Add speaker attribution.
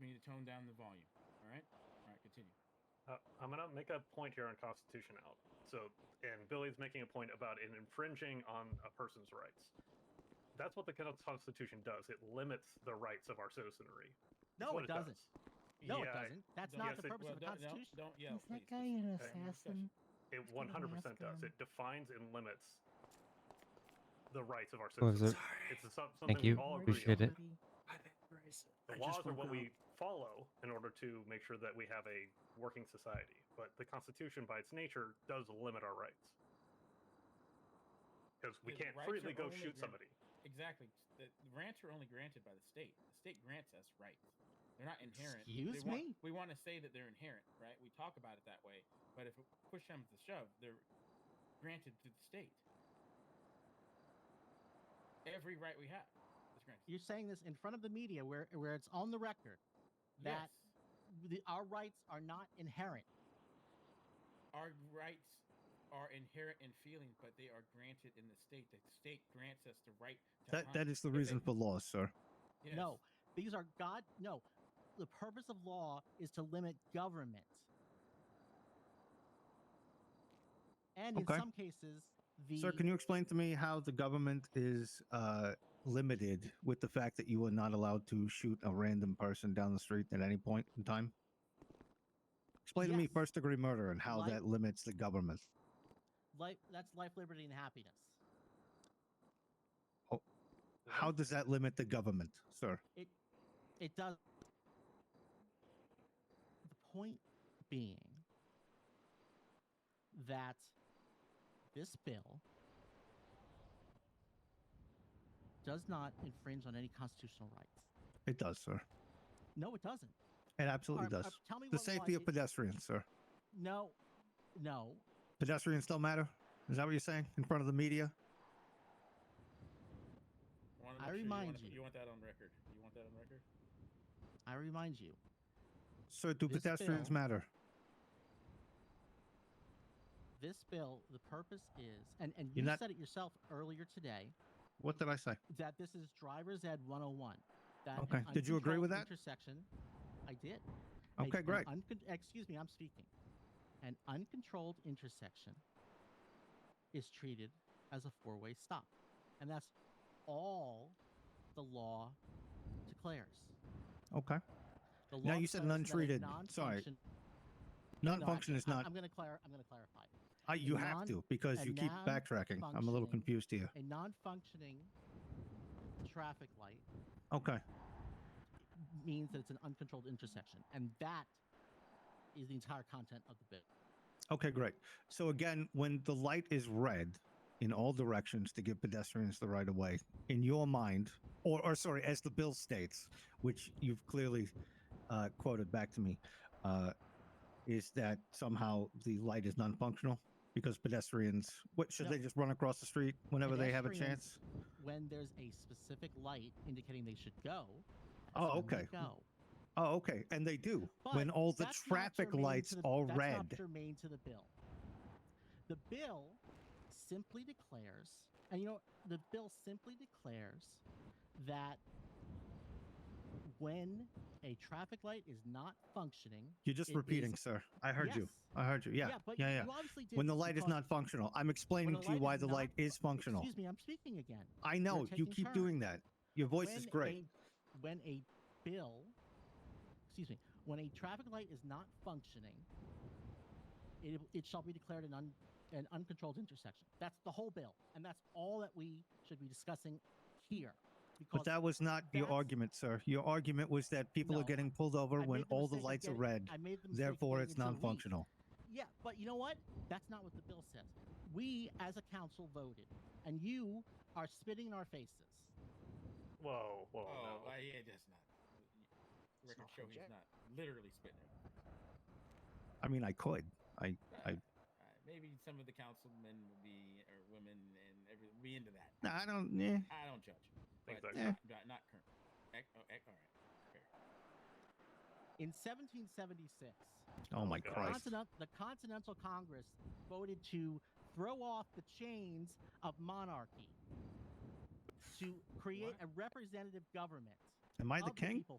Speaker 1: We need to tone down the volume. All right. All right. Continue.
Speaker 2: Uh, I'm gonna make a point here on Constitution out. So, and Billy's making a point about it infringing on a person's rights. That's what the Constitution does. It limits the rights of our citizenry. That's
Speaker 3: No,
Speaker 2: what
Speaker 3: it doesn't.
Speaker 2: Yeah,
Speaker 3: No, it doesn't. That's
Speaker 1: Don't-
Speaker 3: not
Speaker 2: yes,
Speaker 3: the
Speaker 2: it-
Speaker 3: purpose
Speaker 1: well,
Speaker 3: of the
Speaker 1: don't- don't-
Speaker 3: Constitution.
Speaker 1: Don't, yell.
Speaker 4: Is
Speaker 1: please.
Speaker 4: that guy an
Speaker 1: This is a
Speaker 4: assassin?
Speaker 1: discussion.
Speaker 2: It
Speaker 4: It's gonna
Speaker 2: 100% does.
Speaker 4: Alaska.
Speaker 3: um,
Speaker 2: It defines and limits the rights of our
Speaker 5: What was
Speaker 2: citizens.
Speaker 5: it?
Speaker 2: It's a, some- something we
Speaker 5: you.
Speaker 2: all agree
Speaker 5: Appreciate
Speaker 2: on.
Speaker 5: it.
Speaker 2: The laws are what we follow in order to make sure that we have a working society. But the Constitution, by its nature, does limit our rights because we
Speaker 1: Yeah, the
Speaker 2: can't
Speaker 1: rights are
Speaker 2: freely go
Speaker 1: only
Speaker 2: shoot
Speaker 1: granted-
Speaker 2: somebody.
Speaker 1: Exactly. The, the grants are only granted by the state. The state grants us rights. They're not inherent. They
Speaker 3: Excuse
Speaker 1: want-
Speaker 3: me?
Speaker 1: we want to say that they're inherent, right? We talk about it that way. But if push comes to shove, they're granted to the state. Every right we have is granted.
Speaker 3: You're saying this in front of the media, where where it's on the record. That-
Speaker 1: Yes.
Speaker 3: The, our rights are not inherent.
Speaker 1: our rights are inherent in feelings, but they are granted in the state. The state grants us the right to
Speaker 6: That
Speaker 1: hunt.
Speaker 6: that is the
Speaker 1: But they-
Speaker 6: reason for laws, sir.
Speaker 1: yes.
Speaker 3: No, these are God. No, the purpose of law is to limit government, and
Speaker 6: Okay.
Speaker 3: in some cases, the
Speaker 6: Sir, can you explain to me how the government is uh, limited with the fact that you are not allowed to shoot a random person down the street at any point in time? Explain to me
Speaker 3: Yes.
Speaker 6: first degree murder and how
Speaker 3: Like-
Speaker 6: that limits the government.
Speaker 3: life, that's life, liberty, and happiness.
Speaker 6: How does that limit the government, sir?
Speaker 3: It it does. The point being that this bill does not infringe on any constitutional rights.
Speaker 6: It does, sir.
Speaker 3: No, it doesn't.
Speaker 6: It absolutely
Speaker 3: Arm- uh,
Speaker 6: does.
Speaker 3: tell me
Speaker 6: The
Speaker 3: what law
Speaker 6: safety of
Speaker 3: it-
Speaker 6: pedestrians, sir.
Speaker 3: No, no.
Speaker 6: Pedestrians still matter? Is that what you're saying in front of the media?
Speaker 1: Wanna
Speaker 3: I
Speaker 1: make sure
Speaker 3: remind
Speaker 1: you. wanna-
Speaker 3: you.
Speaker 1: want that on record? You want that on record?
Speaker 3: I remind you,
Speaker 6: Sir, do
Speaker 3: This
Speaker 6: pedestrians
Speaker 3: bill-
Speaker 6: matter?
Speaker 3: this bill, the purpose is, and, and you
Speaker 6: You're not-
Speaker 3: said it yourself earlier today,
Speaker 6: What did I say?
Speaker 3: that this is driver's ed 101. That an
Speaker 6: Okay. Did you agree with
Speaker 3: uncontrolled
Speaker 6: that?
Speaker 3: Intersection. I did. A-
Speaker 6: Okay,
Speaker 3: an
Speaker 6: great.
Speaker 3: uncon- excuse me, I'm speaking. An uncontrolled intersection is treated as a four way stop. And that's all the law declares.
Speaker 6: Okay.
Speaker 3: The law
Speaker 6: Now you said an
Speaker 3: declares that a
Speaker 6: untreated- sorry,
Speaker 3: non-function-
Speaker 6: Non
Speaker 3: No,
Speaker 6: function
Speaker 3: I,
Speaker 6: is
Speaker 3: I-
Speaker 6: not.
Speaker 3: I'm going to clar- I'm going to clarify.
Speaker 6: I, you have to because
Speaker 3: a
Speaker 6: you keep backtracking. I'm a little
Speaker 3: non-functioning-
Speaker 6: confused here.
Speaker 3: A non-functioning traffic light
Speaker 6: Okay.
Speaker 3: means that it's an uncontrolled intersection, and that is the entire content of the bit.
Speaker 6: Okay, great. So again, when the light is red in all directions to give pedestrians the right of way, in your mind, or, or sorry, as the bill states, which you've clearly uh, quoted back to me, uh, is that somehow the light is non-functional because pedestrians? What should
Speaker 3: No.
Speaker 6: they just run across the street whenever they have a chance?
Speaker 3: Pedestrians- When there's a specific light indicating they should go, that's
Speaker 6: Oh,
Speaker 3: when they
Speaker 6: okay.
Speaker 3: go.
Speaker 6: Oh, okay, and they do when
Speaker 3: But
Speaker 6: all the
Speaker 3: that's not
Speaker 6: traffic
Speaker 3: germane
Speaker 6: lights
Speaker 3: to the-
Speaker 6: are
Speaker 3: that's not
Speaker 6: red.
Speaker 3: germane to the bill. The bill simply declares, and you know, the bill simply declares that when a traffic light is not functioning,
Speaker 6: You're just
Speaker 3: it is-
Speaker 6: repeating, sir. I heard you.
Speaker 3: Yes.
Speaker 6: I heard you. Yeah. Yeah.
Speaker 3: but
Speaker 6: yeah,
Speaker 3: you obviously did
Speaker 6: When the light is
Speaker 3: because-
Speaker 6: not functional, I'm explaining
Speaker 3: the
Speaker 6: to you
Speaker 3: light
Speaker 6: why
Speaker 3: is
Speaker 6: the
Speaker 3: not
Speaker 6: light is functional.
Speaker 3: Excuse me, I'm speaking again.
Speaker 6: I know you
Speaker 3: taking
Speaker 6: keep
Speaker 3: turns.
Speaker 6: doing that. Your voice is great.
Speaker 3: A, when a bill, excuse me, when a traffic light is not functioning, it, it shall be declared an, un, an uncontrolled intersection. That's the whole bill, and that's all that we should be discussing here. Because
Speaker 6: But that was not your
Speaker 3: that's-
Speaker 6: argument, sir. Your argument was that people
Speaker 3: No,
Speaker 6: are getting pulled over
Speaker 3: I
Speaker 6: when
Speaker 3: made the
Speaker 6: all the
Speaker 3: mistake of
Speaker 6: lights are
Speaker 3: getting-
Speaker 6: red.
Speaker 3: I made the mistake of
Speaker 6: Therefore,
Speaker 3: getting
Speaker 6: it's
Speaker 3: it so weak.
Speaker 6: non-functional.
Speaker 3: Yeah, but you know what? That's not what the bill says. We, as a council, voted, and you are spitting in our faces.
Speaker 2: Whoa, whoa,
Speaker 1: Oh,
Speaker 2: no.
Speaker 1: uh, yeah, that's not. Record
Speaker 3: not
Speaker 1: show he's
Speaker 3: legit.
Speaker 1: not literally spitting. it.
Speaker 6: I mean, I could. I. I.
Speaker 1: Uh, maybe some of the councilmen would be or women and every be into that.
Speaker 6: Nah, I don't. Eh.
Speaker 1: I don't judge, but
Speaker 2: Exactly.
Speaker 1: not, not, not current. Ec- oh, ec- all right.
Speaker 3: In 1776,
Speaker 6: Oh my
Speaker 2: God.
Speaker 6: Christ.
Speaker 3: Continent, the Continental Congress voted to throw off the chains of monarchy to create
Speaker 1: What?
Speaker 3: a representative government
Speaker 6: Am I
Speaker 3: of
Speaker 6: the king?
Speaker 3: people